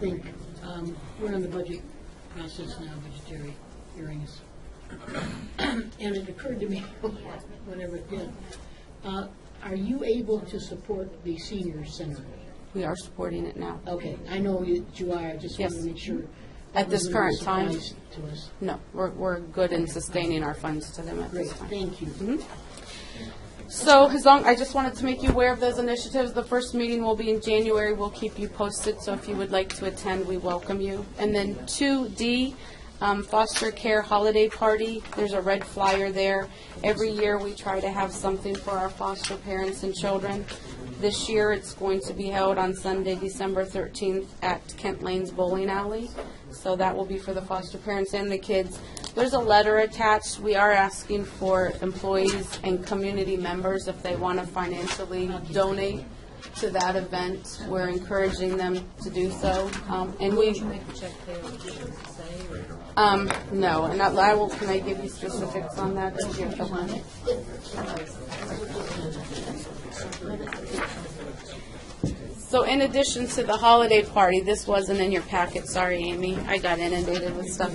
think, um, we're in the budget process now, budgetary hearings. And it occurred to me, whenever it did, uh, are you able to support the senior center? We are supporting it now. Okay, I know you you are, I just wanted to Yes. make sure. At this that was a current time. surprise To us. No, we're, we're good in sustaining our funds to them at Great, this time. Mm-hmm. thank you. So as long, I just wanted to make you aware of those initiatives. The first meeting will be in January. We'll keep you posted, so if you would like to attend, we welcome you. And then 2D, um, Foster Care Holiday Party. There's a red flyer there. Every year, we try to have something for our foster parents and children. This year, it's going to be held on Sunday, December 13th at Kent Lane's Bowling Alley. So that will be for the foster parents and the kids. There's a letter attached. We are asking for employees and community members if they want to financially donate to that event. We're encouraging them to do so. Um, And we, um, no, and I I will, can I give you specifics on that? Did you- okay. So in addition to the holiday party, this wasn't in your packet, sorry, Amy, I got inundated with stuff.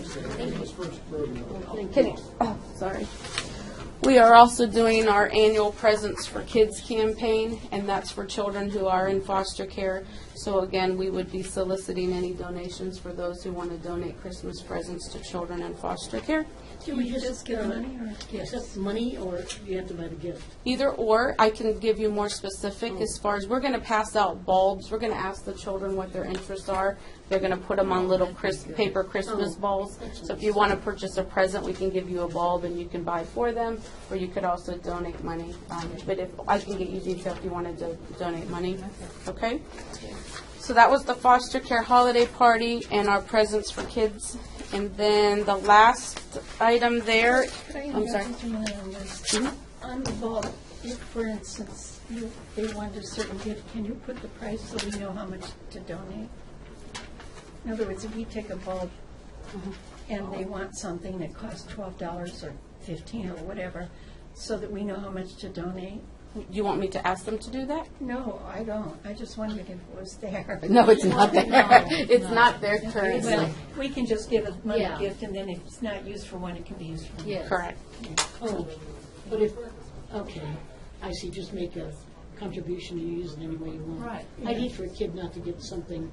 Kidding, oh, sorry. We are also doing our annual Presents for Kids campaign, and that's for children who are in foster care. So again, we would be soliciting any donations for those who want to donate Christmas presents to children in foster care. Can we just get money or? Accept money or you have to buy the gift? Either or, I can give you more specific as far as, we're gonna pass out bulbs, we're gonna ask the children what their interests are. They're gonna put them on little Chris, paper Christmas balls. So if you wanna purchase a present, we can give you a bulb and you can buy for them, or you could also donate money. Um, But if, I can get you detail if you wanna do- donate money, okay? So that was the foster care holiday party and our presents for kids. And then the last item there, I'm sorry. Mm-hmm. On the bulb, if, for instance, you, they want a certain gift, can you put the price so we know how much to donate? In other words, if we take a bulb Mm-hmm. and they want something that costs twelve dollars or fifteen or whatever, so that we know how much to donate? you want me to ask them to do that? No, I don't. I just wondered if it was there. No, it's not there. It's not there currently. Well, we can just give a money Yeah. gift and then if it's not used for one, it can be used for another. Correct. Oh, but if, okay, I see, just make a contribution, you use it any way you want. Right. I'd hate for a kid not to get something,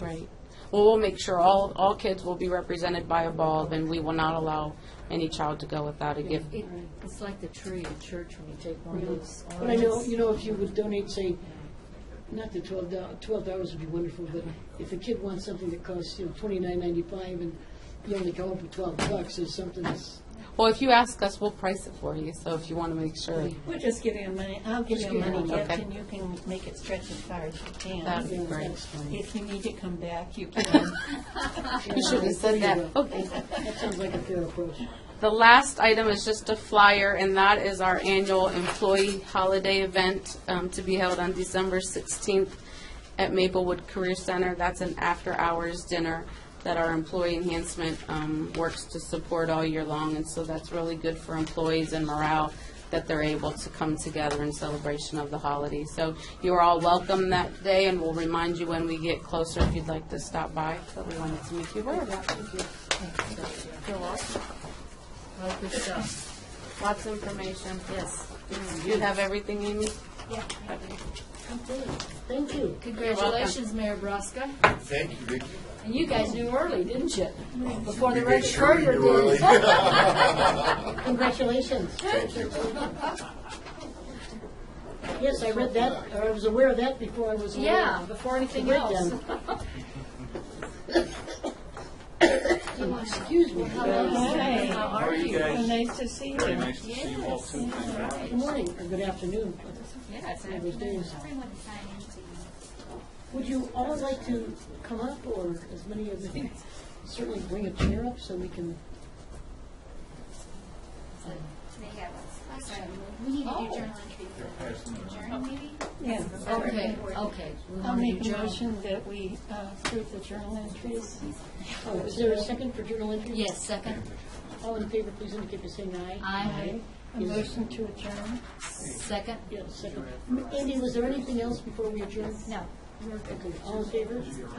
Right. Well, we'll make sure all, all kids will be represented by a bulb, and we will not allow any child to go without a gift. It, it's like the tree at church when you take one Mm-hmm. of those but I know, ornaments. you know, if you would donate, say, not the twelve dollars, twelve dollars would be wonderful, but if a kid wants something that costs, you know, twenty-nine ninety-five and you only come up with twelve bucks, is something that's, Well, if you ask us, we'll price it for you, so if you want to make sure, We'll just give you a money, I'll give Just you a give you money a- gift okay. and you can make it stretch as far as you can. that'd be great. that's fine. If you need to come back, you can. You should have said that. Okay. That sounds like a fair approach. The last item is just a flyer, and that is our annual employee holiday event um, to be held on December 16th at Maplewood Career Center. That's an after-hours dinner that our employee enhancement um, works to support all year long, and so that's really good for employees and morale that they're able to come together in celebration of the holiday. So you are all welcome that day, and we'll remind you when we get closer if you'd like to stop by, but we wanted to make you aware of that. Oh, good stuff. Lots of information. Yes. You have everything, Amy? Thank you. Congratulations, Mayor Braska. Thank you, Vicki. And you guys knew early, didn't you? Mm-hmm. Before the You red made sure you knew courier early. did. Congratulations. Thank you. Yes, I read that, or I was aware of that before I was aware of Yeah, before anything Right else. Excuse me. Good Hi, How are you? so nice to see you. Nice to see you all too. morning, or good afternoon. Yes. I was doing so. Would you all like to come up, or as many of you, certainly bring a chair up so we can, They have a question. We need to do journal Oh, entry for journal meeting. Yeah. Okay, okay. We I'll want to make do a journal. motion that we uh, approve the journal entries. oh, is there a second for journal entry? Yes, second. All in favor, please indicate by saying aye. I, A motion to adjourn. second. Yes, second. Andy, was there anything else before we adjourn? No. Okay, all in favor?